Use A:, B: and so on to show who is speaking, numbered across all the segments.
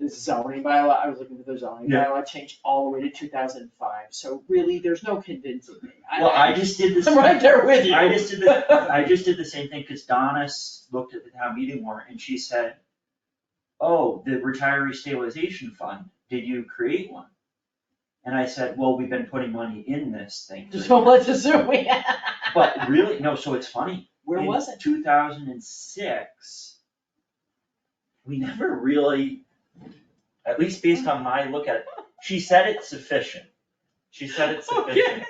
A: the zoning bylaw, I was looking for the zoning
B: Yeah.
A: bylaw change all the way to two thousand and five, so really, there's no convincing me.
B: Well, I just did this.
A: I'm right there with you.
B: I just did the, I just did the same thing, cause Donna s- looked at the town meeting warrant and she said, oh, the retiree stabilization fund, did you create one? And I said, well, we've been putting money in this thing. for
A: So let's
B: years."
A: assume we.
B: But really, no, so it's funny.
A: Where was it?
B: Two thousand and six. We never really, at least based on my look at it, she said it's sufficient. She said it's sufficient.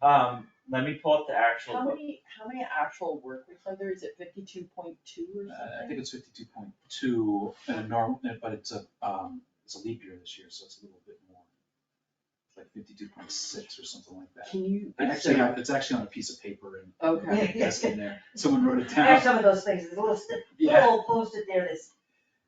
B: Um, let me pull up the actual.
A: How many, how many actual work weeks are there? Is it fifty-two point two or
C: Uh, I
A: something?
C: think it's fifty-two point two and a normal, but it's a, um, it's a leap year this year, so it's a little bit more. It's Like fifty-two point six or something like that.
A: Can you?
C: It's Actually, on- it's actually on a piece of paper and.
A: Okay.
C: Yes, in there, someone wrote it
D: I
C: down,
D: have some of those things, there's a little, sti-
C: Yeah.
D: little post-it there that's,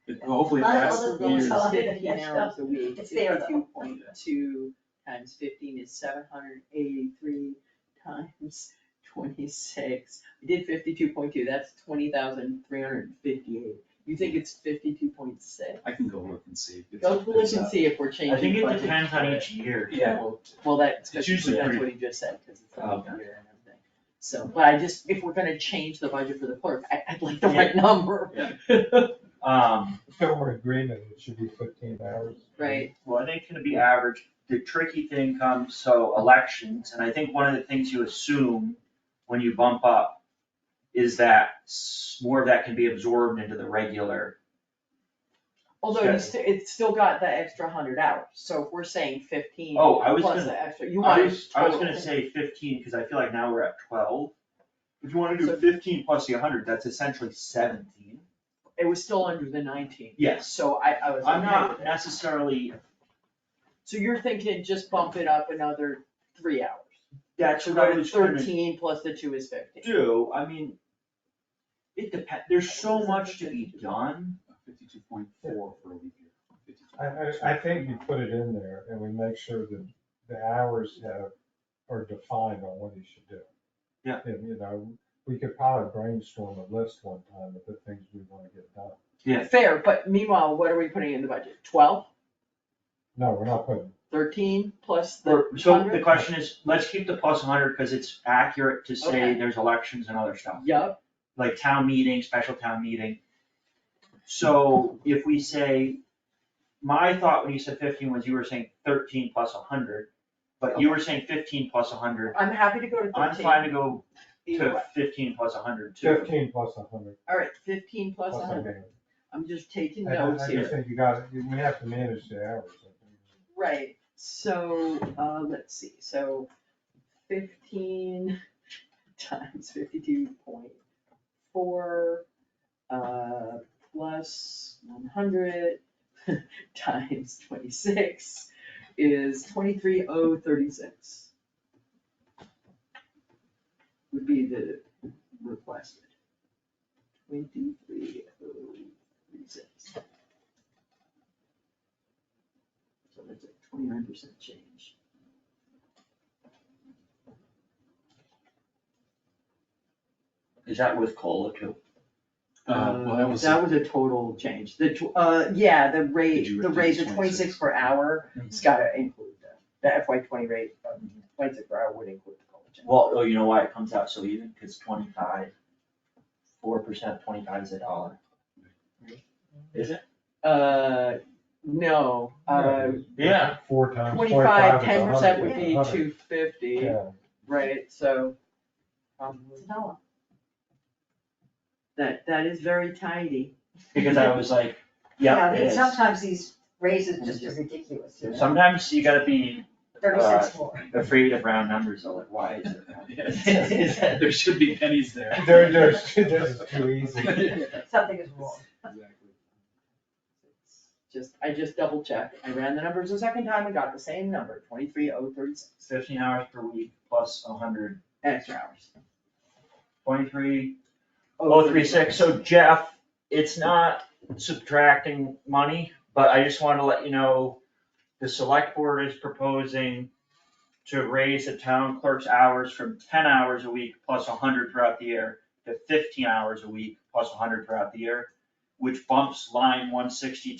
C: It- hopefully it
D: Lot of
C: lasts
D: other
C: years.
D: little stuff.
A: Fifteen hours a week,
D: It's there, though.
A: fifty-two point two times fifteen is seven hundred eighty-three times twenty-six. I did fifty-two point two, that's twenty thousand three hundred and fifty-eight. You think it's fifty-two point six?
C: I can go look and see. if it's-
A: Go look
C: it's,
A: and
C: uh,
A: see if we're changing.
B: I think it
A: budget.
B: depends on each year.
C: Yeah, well,
A: Well, that's,
C: It's
A: that's
C: usually
A: what
C: pretty-
A: he just said, cause it's
B: Oh,
A: on here and everything. So, but I just, if we're gonna change the budget for the clerk, I, I'd like the right number.
B: Um,
E: If there were agreement, it should be fifteen hours.
A: Right,
B: well, I think it's gonna be average. The tricky thing comes, so elections, and I think one of the things you assume when you bump up is that s- more of that can be absorbed into the regular.
A: although you
B: Okay.
A: still, it's still got the extra hundred hours, so if we're saying fifteen
B: Oh, I was
A: plus
B: gonna,
A: the extra, you want
B: I
A: it
B: was, I was
A: total.
B: gonna say fifteen, cause I feel like now we're at twelve. If you wanna do
A: So-
B: fifteen plus the hundred, that's essentially seventeen.
A: It was still under the nineteen.
B: Yes.
A: So I, I was
B: I'm
A: okay
B: not
A: with it.
B: necessarily,
A: So you're thinking just bump it up another three hours.
B: that's
A: So
B: what I
A: go to
B: was gonna
A: thirteen plus the two is fifteen.
B: do, I mean, it depends, there's so much to be done.
C: fifty-two point four for a leap year. 52.2.
E: I, I, I think you put it in there and we make sure that the hours have, are defined on what you should do.
B: Yeah.
E: And, you know, we could probably brainstorm a list one time of the things we wanna get done.
B: Yeah.
A: Fair, but meanwhile, what are we putting in the budget? Twelve,
E: No, we're not putting,
A: thirteen plus the
B: Or-
A: hundred?
B: So the question is, let's keep the plus hundred, cause it's accurate to say
A: Okay.
B: there's elections and other stuff,
A: Yup,
B: like town meeting, special town meeting. So if we say, my thought when you said fifteen was you were saying thirteen plus hundred, but you were saying fifteen plus hundred,
A: I'm happy to go to
B: I'm
A: thirteen,
B: fine to go
A: either way.
B: to fifteen plus hundred too.
E: fifteen plus a hundred.
A: All right, fifteen plus
E: plus
A: a
E: a
A: hundred, I'm just taking
E: I- I-
A: notes
E: I just
A: here.
E: think you got, we have to manage the hours. I think.
A: Right, so, uh, let's see, so fifteen times fifty-two point four, uh, plus one hundred times twenty-six is twenty-three oh thirty-six. Would be the requested. Twenty-three oh thirty-six. So that's a twenty-nine percent change.
B: Is that with COLA too?
C: Uh, well, that
E: um,
C: was,
A: Um, That was a total change, the, tw- uh, yeah, the
C: Did you
A: rate, the
C: reduce Mm-hmm.
A: rate, the
C: 26?
A: twenty-six per hour, it's gotta include that, the FY twenty rate, of twenty-six per hour would include the COLA change.
B: Well, oh, you know why it comes out so even, cause twenty-five, four percent, twenty-five is a dollar. Is it?
A: Uh, no, uh,
B: Yeah.
E: Four times
A: twenty-five,
E: Um, is
A: ten percent
E: 100,
A: would be
E: yeah, 100.
A: two fifty,
E: Yeah.
A: right, so. um,
D: it's a dollar.
A: That, that is very tidy.
B: Because I was like, yeah,
D: I
B: it
D: mean,
B: is.
D: Sometimes these raises just are ridiculous, you know,
B: Sometimes you gotta be
D: thirty
B: uh,
D: cents more.
B: afraid of round numbers, though, like, why is it? round?
C: yeah, there should be pennies there.
E: There, there's, this is too easy.
D: Something is wrong.
C: Exactly.
A: Just, I just double checked, I ran the numbers a second time and got the same number, twenty-three oh thirty-six,
B: Fifteen hours per week plus a hundred,
A: extra hours.
B: twenty-three, oh, three, six, so Jeff, it's not subtracting money, but I just wanted to let you know, the select board is proposing to raise the town clerk's hours from ten hours a week plus hundred throughout the year to fifteen hours a week plus hundred throughout the year, which bumps line one sixty